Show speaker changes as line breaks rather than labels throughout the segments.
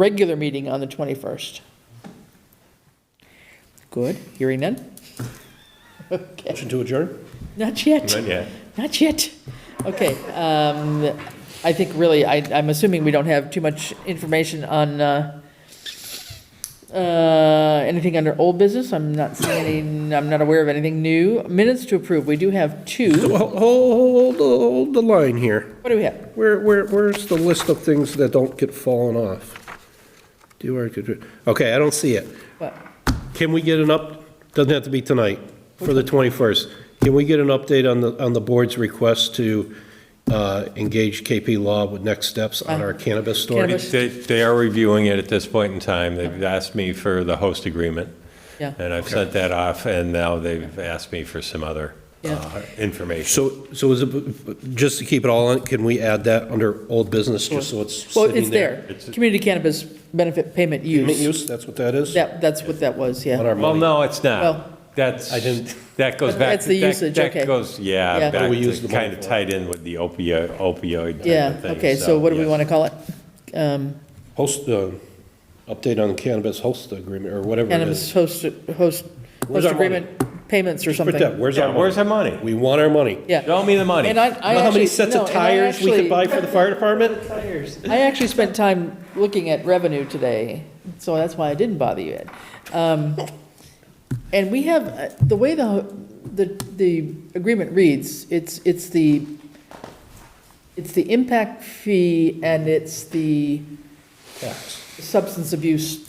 regular meeting on the 21st? Good, hearing none? Okay,
Motion to adjourn?
not yet,
Yeah.
not yet. Okay, um, I think really, I, I'm assuming we don't have too much information on, uh, uh, anything under old business, I'm not seeing any, I'm not aware of anything new. Minutes to approve, we do have two.
Hold, hold, hold the line here.
What do we have?
Where, where, where's the list of things that don't get fallen off? Do our, okay, I don't see it.
What?
Can we get an up, doesn't have to be tonight, for the 21st. Can we get an update on the, on the board's request to uh, engage KP Law with next steps on our cannabis story?
Cannabis.
They, they are reviewing it at this point in time. They've asked me for the host agreement,
Yeah.
and I've sent that off, and now they've asked me for some other uh,
Yeah.
information.
So, so is it, just to keep it all in, can we add that under old business, just so it's
Well,
sitting
it's
there?
there, community cannabis benefit payment
Mint
use.
use, that's what that is?
That, that's what that was,
On
yeah.
our
Well,
money?
no, it's
Well-
not. That's,
I didn't-
that goes back.
That's the
that-
usage, okay.
That goes,
Yeah.
yeah,
What
back
do we use the
to
money
kind of
for?
tied in with the opioid, opioid type
Yeah,
of thing,
okay, so what do we
yes.
want to call it? Um,
Host, uh, update on cannabis host agreement, or whatever it
Cannabis
is.
host, host,
Where's
host
our money?
agreement payments or
Put that,
something.
where's
Yeah,
our
where's
money?
our money?
We want our money.
Yeah.
Show me the money.
And I, I
You know how many
actually-
sets of
no, and I
tires we
actually-
could buy for the fire department?
I actually spent time looking at revenue today, so that's why I didn't bother you, Ed. Um, And we have, uh, the way the, the, the agreement reads, it's, it's the, it's the impact fee and it's the
Tax.
substance abuse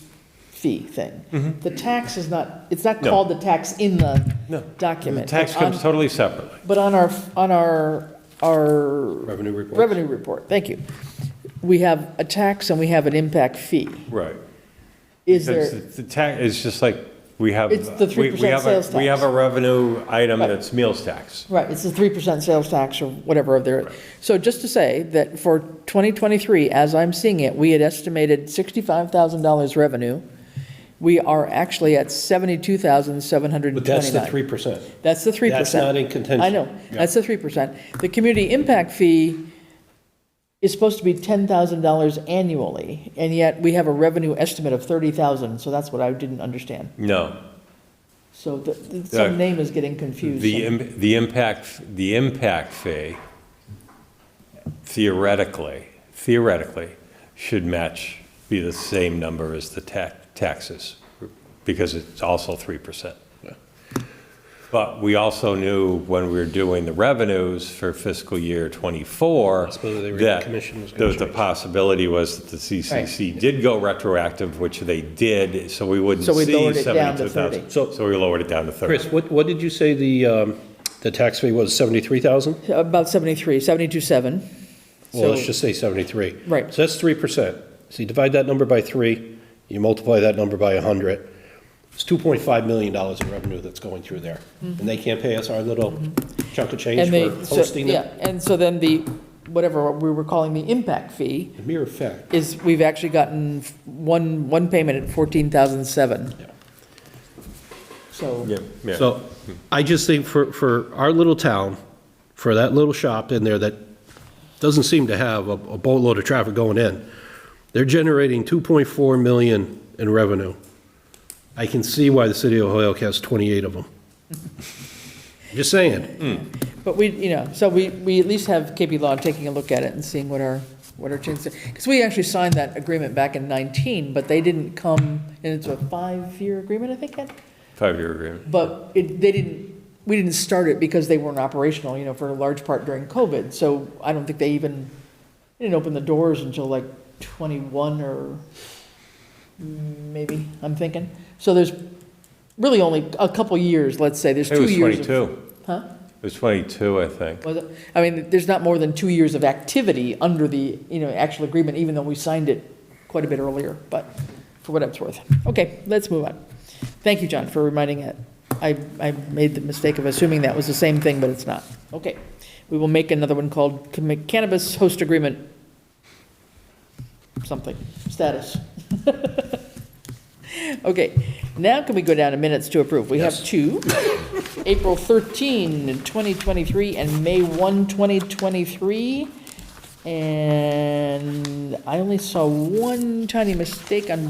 fee thing. The tax is not, it's not
Mm-hmm. No.
called the tax in
No.
the
The
document.
tax
but on-
comes totally separately.
But on our, on our, our
Revenue report.
revenue report, thank you, we have a tax and we have an impact fee.
Right.
Is
Because
there,
The tax, it's just like, we have.
It's the
we- we
3%
have a-
sales
We
tax.
have a revenue item
Right.
that's meals tax.
right, it's a three percent sales tax or whatever of their, so just to say that for twenty twenty-three, as I'm seeing it, we had estimated sixty-five thousand dollars revenue. We are actually at seventy-two thousand, seven hundred and
But
twenty-nine.
that's the three percent.
That's the three percent.
That's not in contention.
I know, that's the three percent. The community impact fee is supposed to be ten thousand dollars annually, and yet we have a revenue estimate of thirty thousand, so that's what I didn't understand.
No,
So the- the,
Yeah.
some name is getting confused.
The, im- the impact, the impact fee theoretically, theoretically, should match, be the same number as the ta- taxes, because it's also 3%. But we also knew when we were doing the revenues for fiscal year '24,
suppose they were- the
that
commission was gonna
the the
change.
possibility was that the CCC did go retroactive, which they did, so we wouldn't
So we lowered
see
it down to
72,000.
30.
So we lowered it down to 30.
Chris, what, what did you say the, um, the tax fee was, seventy-three thousand?
About seventy-three, seventy-two, seven.
Well, let's
So-
just say seventy-three.
Right.
So that's three percent. So you divide that number by three, you multiply that number by a hundred. It's two point five million dollars in revenue that's going through there. And they can't pay us our little chunk of change
Mm-hmm. And they,
for
so,
hosting
yeah,
them.
and so then the, whatever we were calling the impact fee,
The mere fact,
is we've actually gotten one, one payment at fourteen thousand seven.
yeah.
So.
Yeah, yeah.
So I just think for, for our little town, for that little shop in there that doesn't seem to have a a boatload of traffic going in, they're generating 2.4 million in revenue. I can see why the city of Hoyoke has 28 of them. Just saying.
But we, you know, so we, we at least have KP Law taking a look at it and seeing what our, what our chances, because we actually signed that agreement back in 19, but they didn't come, and it's a five-year agreement, I think, Ed?
Five-year agreement.
but it, they didn't, we didn't start it because they weren't operational, you know, for a large part during COVID, so I don't think they even, they didn't open the doors until like 21 or maybe, I'm thinking. So there's really only a couple years, let's say, there's
It
two
was
years. of-
22.
Huh?
It was 22, I think.
Was it- I mean, there's not more than two years of activity under the, you know, actual agreement, even though we signed it quite a bit earlier, but for what it's worth. Okay, let's move on. Thank you, John, for reminding it. I, I made the mistake of assuming that was the same thing, but it's not. Okay, we will make another one called commi- cannabis host agreement, something, status. Okay, now can we go down to minutes to approve? We have two. April 13, 2023, and May 1, 2023. And I only saw one tiny mistake on